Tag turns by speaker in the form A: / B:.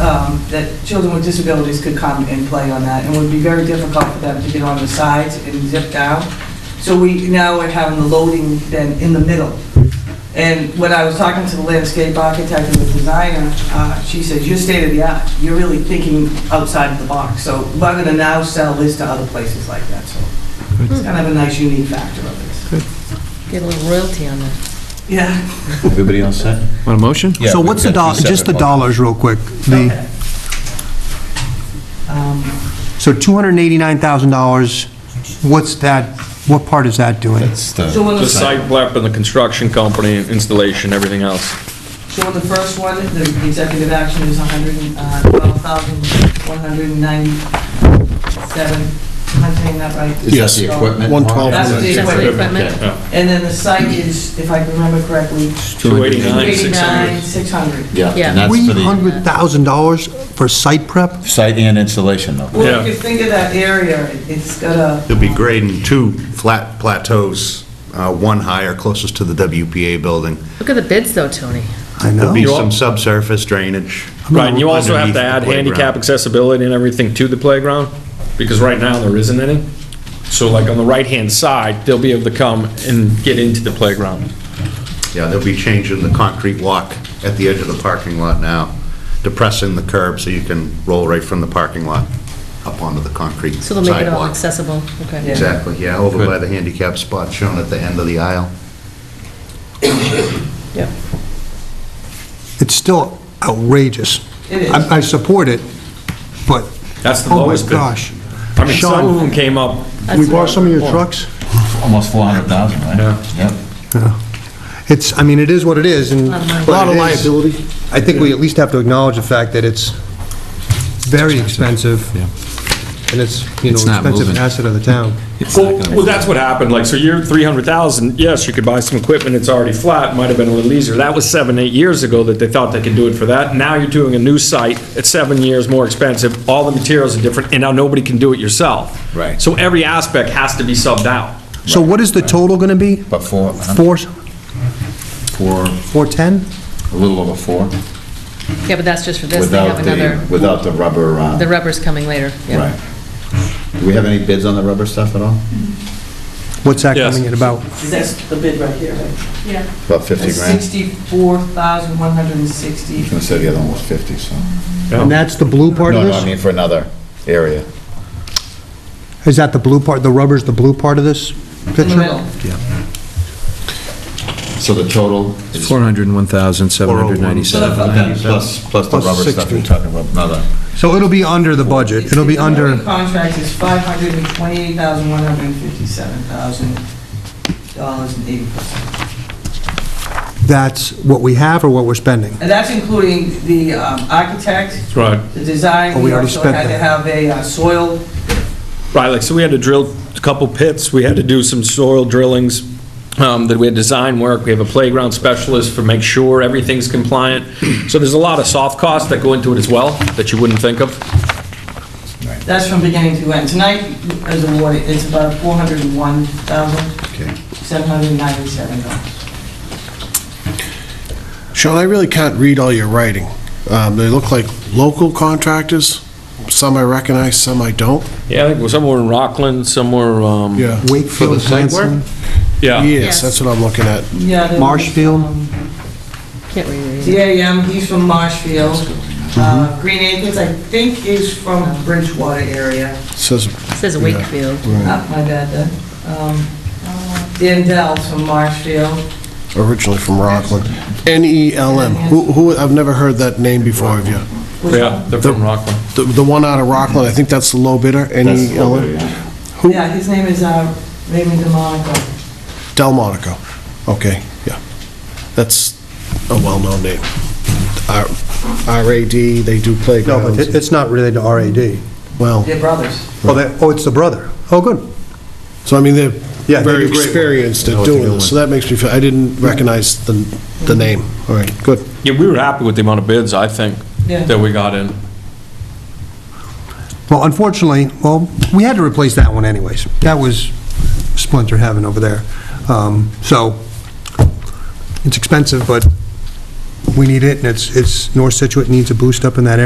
A: um, that children with disabilities could come and play on that, and it would be very difficult for them to get on the sides and zip down. So we, now we're having the loading then in the middle. And when I was talking to the landscape architect and the designer, uh, she says, you're state of the art, you're really thinking outside the box, so we're gonna now sell this to other places like that, so it's kind of a nice unique factor of this.
B: Get a little royalty on that.
A: Yeah.
C: Everybody all set?
D: Want a motion?
C: Yeah,
E: So
C: we've
E: what's the
C: got
E: dollar,
C: two
E: just the
C: separate
E: dollars real quick. The,
A: Okay. Um,
E: so $289,000, what's that, what part is that doing?
C: That's the.
A: So when
F: The
A: the,
F: site prep and the construction company, installation, everything else.
A: so when the first one, the executive action is uh, 112,197, am I saying that right?
C: Is that the equipment?
G: 112.
A: That's the equipment.
B: Equipment.
A: And then the site is, if I can remember correctly,
F: 289,
A: 89,
F: 600.
A: 600.
C: Yeah,
B: Yeah.
C: and that's for the
E: $300,000 for site prep?
C: site and installation though.
A: Well, if
F: Yeah.
A: you think of that area, it's got a...
G: You'll be grading two flat plateaus, uh, one higher closest to the WPA building.
B: Look at the bids though, Tony.
E: I
G: There'll
E: know.
G: be some subsurface drainage.
F: Right, and you also have to add
G: Underneath the playground.
F: handicap accessibility and everything to the playground, because right now there isn't any. So like on the right-hand side, they'll be able to come and get into the playground.
G: Yeah, they'll be changing the concrete walk at the edge of the parking lot now, depressing the curb so you can roll right from the parking lot up onto the concrete
B: So they'll make it all
G: sidewalk.
B: accessible, okay.
A: Yeah.
G: Exactly, yeah, over by the handicap spot shown at the end of the aisle.
E: It's still outrageous.
A: It is.
E: I I support it, but,
F: That's the
E: oh my
F: lowest bid. I
E: gosh.
F: mean, some of them came up,
E: We bought some of your trucks?
C: Almost 400,000, right?
F: Yeah.
C: Yep.
E: It's, I mean, it is what it is, and...
B: A
E: lot of liability. I think we at least have to acknowledge the fact that it's very expensive, and it's, you know,
C: It's not
E: expensive
C: moving.
E: asset of the town.
F: Well, well, that's what happened, like, so you're 300,000, yes, you could buy some equipment, it's already flat, might have been a little easier. That was seven, eight years ago that they thought they could do it for that. Now you're doing a new site, it's seven years more expensive, all the materials are different, and now nobody can do it yourself.
C: Right.
F: So every aspect has to be subbed out.
E: So what is the total going to be?
C: But four,
E: Four,
C: four,
E: 410?
C: a little over four,
B: Yeah, but that's just for this, they have
C: without
B: another,
C: the, without the rubber, uh,
B: the rubber's coming later, yeah.
C: right. Do we have any bids on the rubber stuff at all?
E: What's that
F: Yes.
E: coming in about?
A: That's the bid right here, right?
C: About 50 grand?
A: 64,160.
C: I was gonna say the other one was 50, so.
E: And that's the blue part
C: No,
E: of
C: no, I
E: this?
C: mean for another area.
E: Is that the blue part, the rubber's the blue part of this picture?
A: middle.
C: So the total is.
D: 401,797.
C: So then Plus, plus the
E: Plus
C: rubber stuff,
E: 60.
C: you're talking about another.
E: So it'll be under the budget, it'll be
A: The current
E: under,
A: Contract is $528,157,000 and 80 cents.
E: that's what we have or what we're spending?
A: And that's including the um, architect,
F: Right.
A: the design.
E: Oh, we already spent
A: also had to
E: that.
A: have a uh, soil
F: Right, like, so we had to drill a couple pits, we had to do some soil drillings, um, that we had design work, we have a playground specialist for make sure everything's compliant. So there's a lot of soft costs that go into it as well, that you wouldn't think of.
A: That's from beginning to end. Tonight is awarded, it's about $401,797.
H: Sean, I really can't read all your writing. Um, They look like local contractors. Some I recognize, some I don't.
F: Yeah, I think we're somewhere in Rockland, somewhere, um,
E: Wakefield, Hanson,
F: yeah,
H: Yes, that's what I'm looking at.
A: Yeah, the-
E: Marshfield?
B: Can't read it.
A: DAM, he's from Marshfield. Uh,
E: Mm-hmm.
A: Green Acres, I think, is from Bridgewater area.
H: Says,
B: It Says Wakefield.
A: Ah, My bad, then. Um, Dan Dell's from Marshfield.
H: originally from Rockland. N-E-L-M. Who, who- I've never heard that name before of you.
F: yeah, they're from Rockland.
H: The the one out of Rockland, I think that's the low bidder, E
C: That's the low bidder,
H: N-E-L-M. Who?
A: Yeah, his name is uh, Raymond DeMonico.
H: Delmonico. Okay, yeah. That's a well-known name. R- R-A-D, they do
E: No, but
H: playgrounds.
E: it- it's not related to RAD.
H: Well,
A: They're brothers.
E: Oh, that, oh, it's the brother. Oh, good.
H: So I mean, they're
E: Yeah, they
H: very
E: do great work.
H: experienced
E: I know
H: at
E: what they're
H: doing this, so that makes me feel, I didn't recognize the, the name. All right, good.
F: Yeah, we were happy with the amount of bids, I think,
A: Yeah.
F: that we got in.
E: Well, unfortunately, well, we had to replace that one anyways. That was splinter heaven over there. Um, So, it's expensive, but we need it, and it's, it's, North Situate needs a boost up in that area.